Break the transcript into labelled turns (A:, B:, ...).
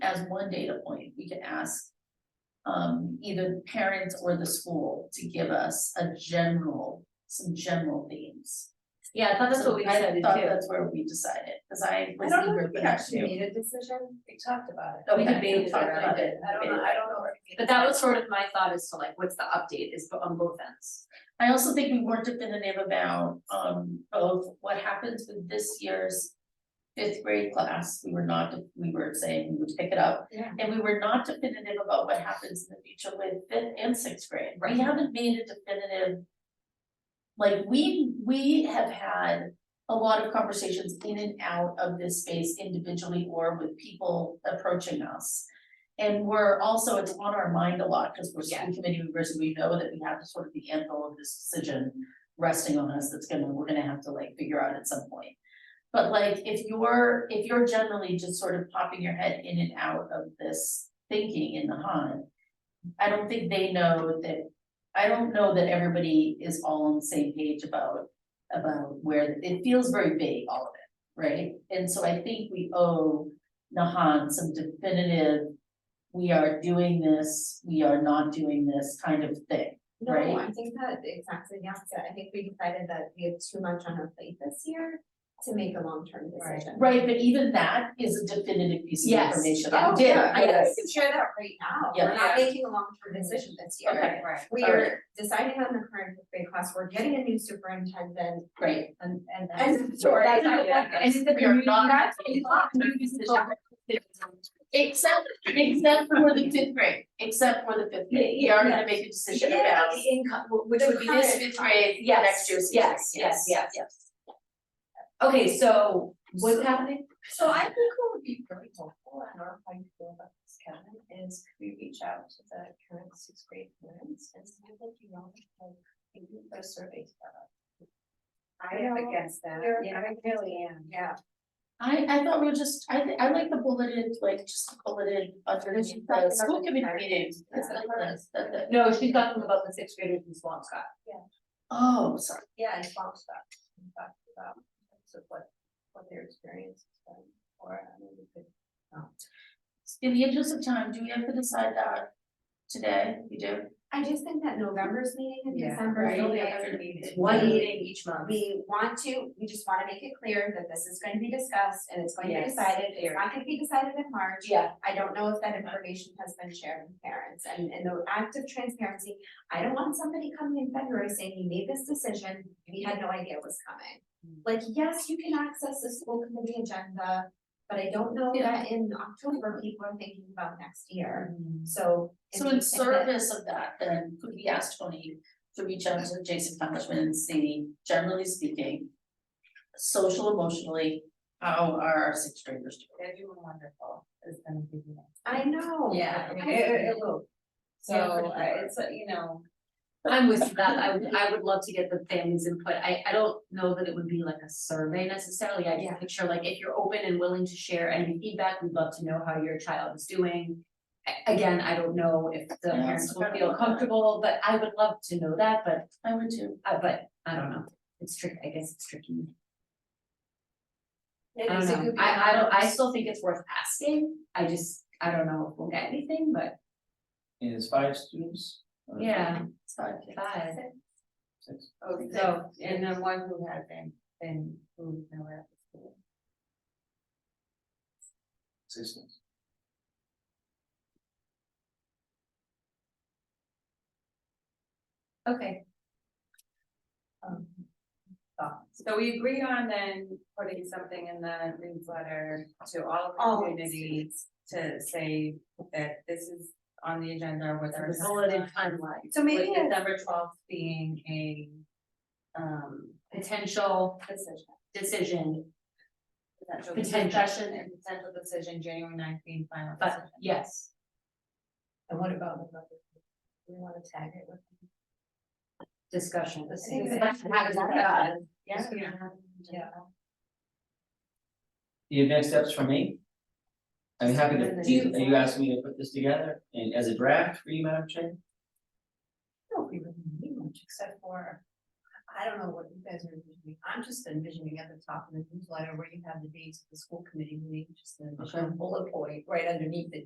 A: as one data point, we can ask. Um, either parents or the school to give us a general, some general themes.
B: Yeah, I thought that's what we
A: So I
B: decided
A: thought
B: too.
A: that's where we decided, cause I
C: I
A: was
C: don't know
A: eager
C: if
A: for
C: we
A: that
C: actually
A: too.
C: made a decision, we talked about it.
A: Okay,
B: Oh, debated
A: we'll talk
B: it, I
A: about
B: did.
C: I don't know, I don't know. if we made a
B: But that was
C: decision.
B: sort of my thought as to like, what's the update is bo- on both ends.
A: I also think we weren't definitive about um both what happens with this year's fifth grade class, we were not, we were saying we would pick it up.
C: Yeah.
A: And we were not definitive about what happens in the future with fifth and sixth grade,
B: Right.
A: we haven't made a definitive. Like, we we have had a lot of conversations in and out of this space individually or with people approaching us. And we're also, it's on our mind a lot, because we're
B: Yeah.
A: school committee members, and we know that we have to sort of the anvil of this decision resting on us that's gonna, we're gonna have to like figure out at some point. But like, if you're, if you're generally just sort of popping your head in and out of this thinking in the hunt. I don't think they know that, I don't know that everybody is all on the same page about, about where, it feels very vague, all of it, right? And so I think we owe Nahan some definitive, we are doing this, we are not doing this kind of thing.
C: No,
A: right?
C: I think that exactly, yes, I think we decided that we have too much on our plate this year to make a long-term
B: Right.
C: decision.
A: Right, but even that is a definitive piece of
B: Yes.
A: information.
C: Oh, yeah, I
B: did,
C: think
B: yes.
C: we can share that right now,
A: Yeah.
C: we're not making a long-term decision this year.
A: Okay.
B: Right.
C: We
A: All
C: are deciding on the current fifth grade class, we're getting a new superintendent
A: Great.
C: and and that's.
B: Sorry.
C: That's how it works.
B: And the
A: We are
B: community.
A: not-
B: That's.
A: Except, except for the fifth grade, except for the fifth grade, we are gonna make a decision
B: Yeah,
A: about.
B: the income, wh- which
C: The
B: would be this
C: current-
B: fifth grade,
A: Yes,
B: next year's fifth grade,
A: yes,
B: yes, yes,
A: yes,
B: yes. Okay, so what's happening?
C: So I think what would be really helpful, I don't know how you feel about this, Kevin, is we reach out to the current sixth grade parents and see if you know, like, maybe put a survey together.
D: I am against that, yeah, I really am.
C: Yeah.
A: I, I thought we were just, I, thi- I like the bulleted, like, just bulleted underneath the school committee meetings, it's like this, that, that.
B: No, she's talking about the sixth graders in Swampscott.
A: Oh, sorry,
C: Yeah, and Bob stuff, talked about, so what, what their experience has been, or, I mean, we could.
A: in the interest of time, do we have to decide that today, we do?
D: I just think that November's meeting in
C: Yeah,
D: December is
A: right.
D: really
A: November
B: It's
D: Yeah.
B: one meeting each month.
D: We want to, we just wanna make it clear that this is going to be discussed and it's going to be
B: Yes.
D: decided, it's not gonna be decided in March.
B: Yeah.
D: I don't know if that information has been shared with parents and and the act of transparency, I don't want somebody coming in February saying you made this decision, we had no idea it was coming. Like, yes, you can access the school committee agenda, but I don't know that in October people are thinking about next year,
B: Mm-hmm.
D: so. if
A: So
D: you-
A: in
D: if it-
A: service of that, then could we ask Tony to reach out to Jason Congressman and see, generally speaking. Social emotionally, how are our sixth graders doing?
E: They're doing wonderful, is gonna be the next.
D: I know.
E: Yeah,
D: I-
E: it, it- it will. So,
B: Yeah, for
E: uh,
B: sure.
E: it's, uh, you know,
B: I'm with you, that, I would, I would love to get the families input, I, I don't know that it would be like a survey necessarily, I
D: Yeah.
B: just picture like, if you're open and willing to share any feedback, we'd love to know how your child is doing. A- Again, I don't know if the
A: Yeah,
B: parents
A: it's
B: will
A: kind of
B: feel
A: like that.
B: comfortable, but I would love to know that, but,
A: I would too.
B: uh, but, I don't know, it's tricky, I guess it's tricky. I
C: Maybe
B: don't
C: so it
B: know,
C: could be
B: I, I don't, I
C: anonymous.
B: still think it's worth asking, I just, I don't know if we'll get anything, but,
F: And it's five students? Uh,
B: yeah,
A: It's not-
B: bye.
F: Six.
E: Oh, so, and then one who hasn't been, who's nowhere at the school.
F: Six students.
B: Okay,
E: um, thoughts. So we agreed on then putting something in the newsletter to all
D: All
E: communities to say that this is on the agenda with our.
B: the bulleted
E: timeline,
B: timeline,
E: So maybe
D: With
E: December twelfth being a, um,
B: potential
E: decision.
B: decision,
E: Potential
B: Potential.
E: discussion and potential decision, January ninth being final
B: but
E: decision.
B: yes.
C: And what about the other? We wanna tag it with.
B: discussion.
C: I think
B: This
C: that-
B: is- how does that go?
E: Yeah.
C: Yeah.
F: The next steps for me? I'm happy to,
E: Do you-
F: are you asking me to put this together and as a draft for you, Madam Chair?
C: don't be really need much except for, I don't know what you guys are envisioning, I'm just envisioning at the top of the newsletter where you have the dates of the school committee meeting, just an additional bullet point right underneath it.